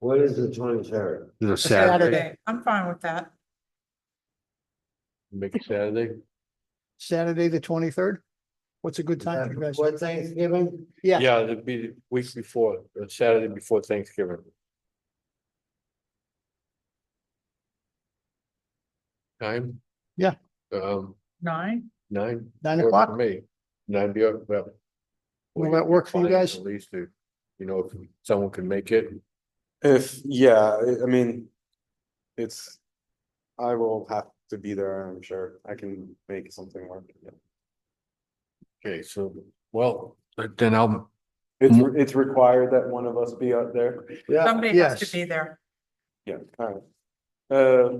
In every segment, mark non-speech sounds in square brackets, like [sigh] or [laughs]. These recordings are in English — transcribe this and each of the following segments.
What is the twenty-third? It's a Saturday. Saturday, I'm fine with that. Make it Saturday. Saturday, the twenty-third? What's a good time for you guys? What Thanksgiving? Yeah. Yeah, it'd be the week before, uh, Saturday before Thanksgiving. Time? Yeah. Um, Nine, nine. Nine works for o'clock? Me, nine, be up, well. Will that work for you fine, guys? At least, if, you know, if someone can make it, If, yeah, I- I mean, it's, I will have to be there, I'm sure. I can make something work. yeah. okay, so, well, then I'll, It's, Mm. re- it's required that one of us be out there. Yeah, somebody has to yes. be there. Yeah, alright. Uh,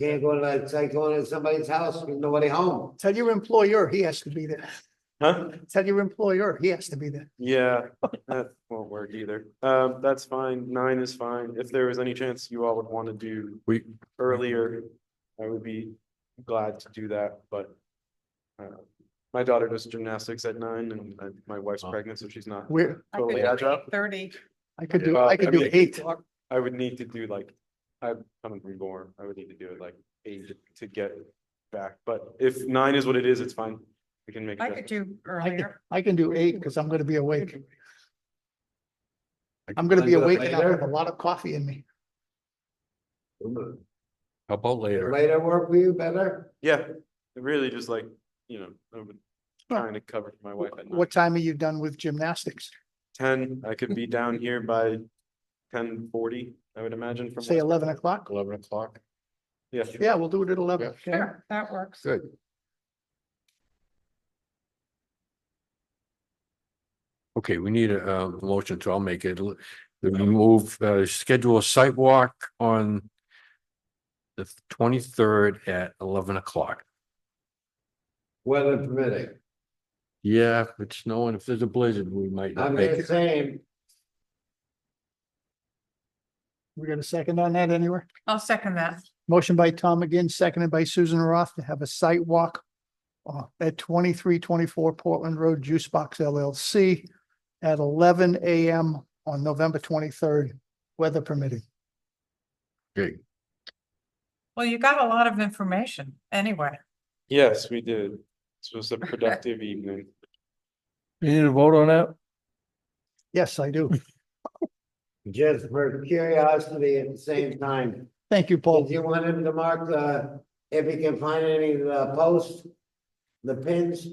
can't go to, like, going to somebody's house with nobody home. Tell your employer he has to be there. huh? Tell your employer he has to be there. Yeah, that won't work either. Um, that's fine. Nine is fine. If there was any chance you all would want to do we, earlier, I would be glad to do that, but uh, my daughter does gymnastics at nine and uh, my wife's Oh. pregnant, so she's not We're, I could totally do agile. Thirty, I could do, Well, I could I do mean- eight. I would need to do like, I'm, I'm reborn. I would need to do it like eight to get back, but if nine is what it is, it's fine. We can make. I could adjustments. do I can, earlier. I can do eight because I'm gonna be awake. I'm gonna be awake and I have a lot of coffee in me. how about later? Later work for you better? Yeah, really just like, you know, I'm trying to cover for my wife at nine. What time are you done with gymnastics? Ten, I could be down here by ten forty, I would imagine from. Say West- eleven o'clock? Eleven o'clock? Yeah. Yeah, we'll do it at eleven. okay? Sure, that works. Good. Okay, we need a, uh motion, so I'll make it. L- We move, uh, schedule a site walk on the twenty-third at eleven o'clock. Weather permitting. Yeah, if it's snowing, if there's a blizzard, we might not I'm make just it. saying, We got a second on that anywhere? I'll second that. Motion by Tom again, seconded by Susan Roth to have a site walk uh, at twenty-three twenty-four Portland Road Juice Box LLC at eleven AM on November twenty-third, weather permitting. Okay, Well, you got a lot of information anyway. Yes, we did. This was a productive evening. you need a vote on that? Yes, I do. just for curiosity at the same time, Thank you, did Paul. you want him to mark the, if he can find any of the posts? The pins,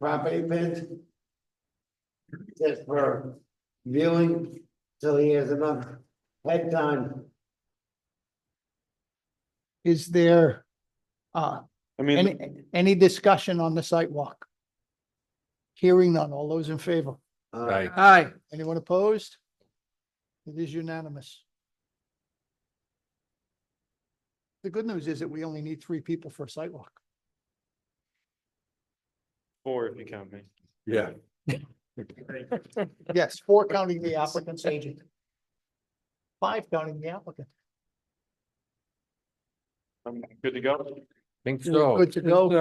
property pins? Just for viewing till he has enough head time. Is there uh, I mean, any, any discussion on the site walk? Hearing none. All those in favor? Uh, Right, Aye. Anyone opposed? It is unanimous. The good news is that we only need three people for a [laughs] sidewalk. four if you count me. yeah. Yes, four counting the applicant's agent. Five counting the applicant. I'm good to go. Think You're so. good to go. Yes,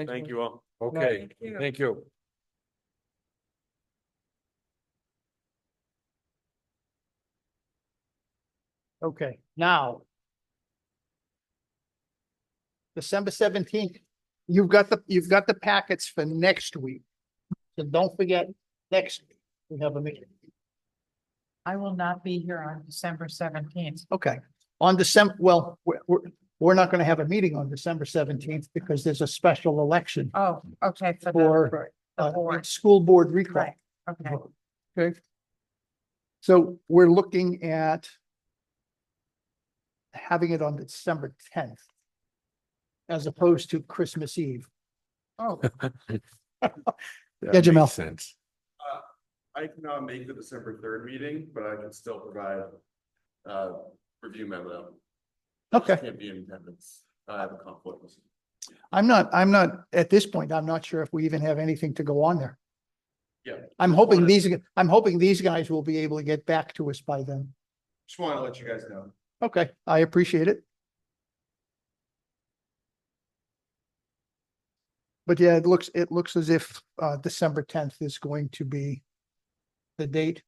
sir. Thank you all. Okay, Thank you. thank you. Okay, now. December seventeenth, you've got the, you've got the packets for next week. So don't forget, next, week we have a meeting. I will not be here on December seventeenth. Okay, on December, well, we're, we're, we're not gonna have a meeting on December seventeenth because there's a special election Oh, okay, for the, for the uh, board, school board recall. right, okay. Okay. So we're looking at having it on December tenth as opposed to Christmas Eve. Oh, That Yeah, Jamel. makes Sense. I cannot make the December third meeting, but I can still provide uh review memo. Okay. Can't be in attendance. I have a conflict. I'm not, I'm not, at this point, I'm not sure if we even have anything to go on there. Yeah. I'm hoping Wanted- these, I'm hoping these guys will be able to get back to us by then. Just want to let you guys know. Okay, I appreciate it. But yeah, it looks, it looks as if uh December tenth is going to be the date.